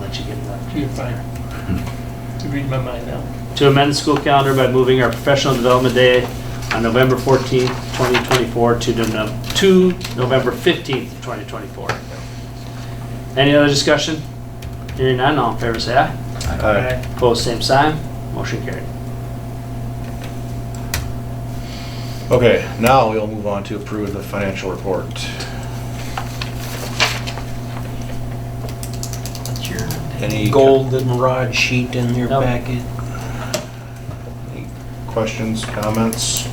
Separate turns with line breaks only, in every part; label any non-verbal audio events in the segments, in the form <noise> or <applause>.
let you get that. You're fine. You read my mind now.
to amend the school calendar by moving our professional development day on November 14th, 2024 to Nov- to November 15th, 2024. Any other discussion? Hearing none, all in favor say aye.
Aye.
Opposed, same sign. Motion carried.
Okay, now we'll move on to approve the financial report.
That's your
Any-
golden rod sheet in your
Nope.
packet.
Any Questions, comments?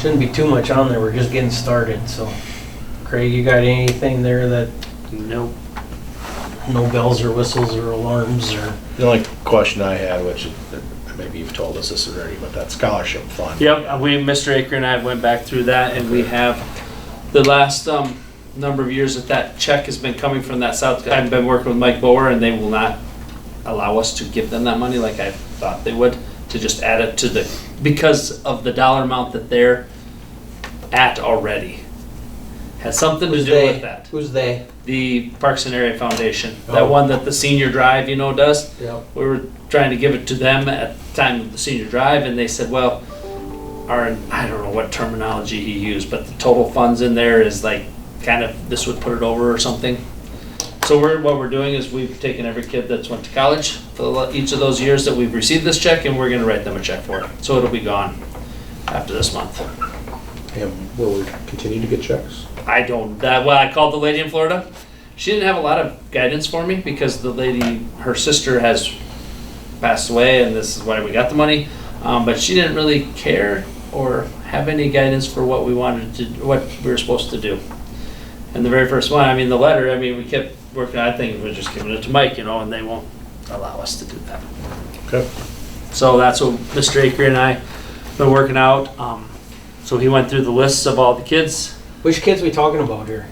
Shouldn't be too much on there, we're just getting started, so. Craig, you got anything there that
No,
no bells or whistles or alarms or?
The only question I had, which uh, maybe you've told us this already, but that scholarship fund.
Yep, uh, we, Mr. Aker and I went back through that and we have, the last, um, number of years that that check has been coming from that South, I've been working with Mike Bower and they will not allow us to give them that money like I thought they would, to just add it to the, because of the dollar amount that they're at already. Has something to
Who's
do with
they?
that.
Who's they?
The Parks and Area Foundation, that
Oh.
one that the senior drive, you know, does
Yep.
we were trying to give it to them at the time of the senior drive, and they said, well, our, I don't know what terminology he used, but the total funds in there is like, kind of, this would put it over or something. So we're, what we're doing is we've taken every kid that's went to college for the lo- each of those years that we've received this check, and we're gonna write them a check for it. So it'll be gone after this month.
And will we continue to get checks?
I don't, that, well, I called the lady in Florida. She didn't have a lot of guidance for me because the lady, her sister has passed away and this is why we got the money. Um, but she didn't really care or have any guidance for what we wanted to, what we were supposed to do. And the very first one, I mean, the letter, I mean, we kept working, I think we're just giving it to Mike, you know, and they won't allow us to do that.
Okay.
So that's what Mr. Aker and I been working out. Um, so he went through the lists of all the kids
Which kids we talking about here?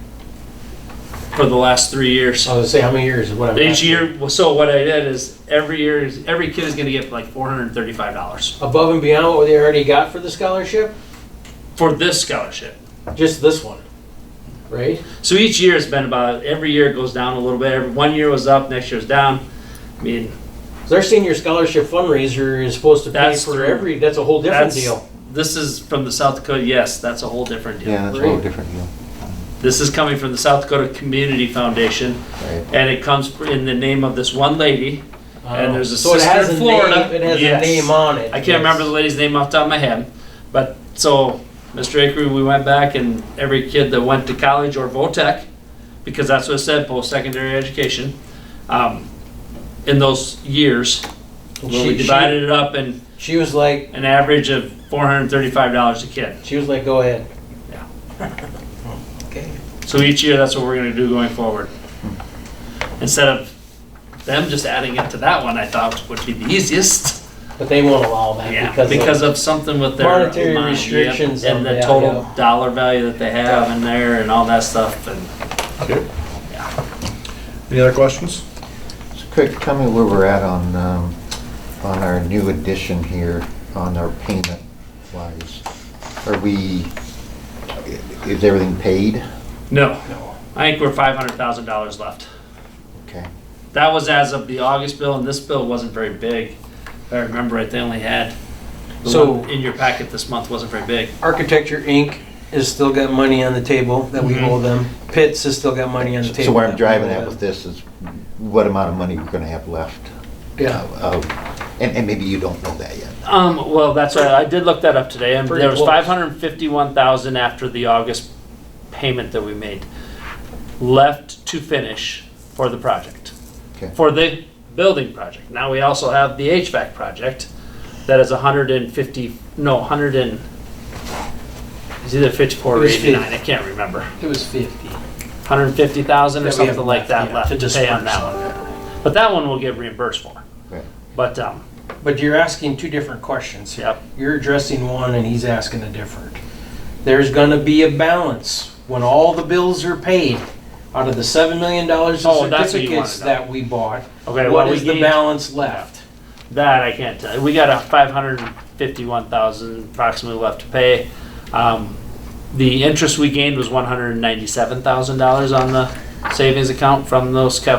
for the last three years.
I was gonna say, how many years is what I'm
Each
asking.
year, well, so what I did is every year, is every kid is gonna get like four hundred and thirty-five dollars
Above and beyond what they already got for the scholarship?
for this scholarship.
Just this one, right?
So each year has been about, every year it goes down a little bit. Every, one year was up, next year was down. I mean,
Their senior scholarship fundraiser is supposed to pay
That's
for
through-
every, that's a whole different
that's,
deal.
this is from the South Dakota, yes, that's a whole different deal.
Yeah, that's a whole different deal.
This is coming from the South Dakota Community Foundation,
Right.
and it comes in the name of this one lady. And there's a
Um, So it has
sister in
a name-
Florida.
It has a
Yes.
name on it.
I can't remember the lady's name off the top of my head, but so Mr. Akery, we went back and every kid that went to college or VOTEC, because that's what it said, post-secondary education, um, in those years,
And
well,
she-
we divided it up in
She, she was like,
an average of four hundred and thirty-five dollars a kid.
she was like, go ahead.
Yeah.
Okay.
So each year, that's what we're gonna do going forward. Instead of them just adding it to that one, I thought would be the easiest. <laughs>
But they won't allow that
Yeah,
because,
because
because
of something with their
monetary
amount, yep,
restrictions
and
on
the
that,
total
yeah.
dollar value that they have in there and all that stuff and
Any other questions?
So Craig, tell me where we're at on, um, on our new addition here, on our payment wise. Are we, is everything paid?
no. I think we're five hundred thousand dollars left.
Okay.
That was as of the August bill and this bill wasn't very big. If I remember right, they only had the
So-
one in your packet this month wasn't very big.
Architecture Inc. has still got money on the table that we
Mhm.
owe them. Pitts has still got money on the table.
So where I'm
that we
driving
owe
at
them.
with this is what amount of money we're gonna have left.
Yeah.
of- And, and maybe you don't know that yet.
Um, well, that's right. I did look that up today, and
Pretty
there was
close.
five hundred and fifty-one thousand after the August payment that we made, left to finish for the project.
Okay.
For the building project. Now, we also have the HVAC project, that is hundred and fifty, no, hundred and, it's either fifty-four
It
or
was fif-
eighty-nine, I can't remember.
It was 50.
Hundred and fifty thousand or
That we have
something like that left
left, yeah,
to
to
pay on
disperse.
that one. But that one we'll get reimbursed for.
Right.
But, um,
But you're asking two different questions here.
Yep.
You're addressing one and he's asking a different. There's gonna be a balance when all the bills are paid out of the seven million dollars
Oh,
of
that's what you wanna
certificates
know.
that we bought.
okay,
What
well, we
is the
gained-
balance left?
That I can't tell. you. We got a five hundred and fifty-one thousand approximately left to pay. Um, the interest we gained was one hundred and ninety-seven thousand dollars on the savings account from those cap,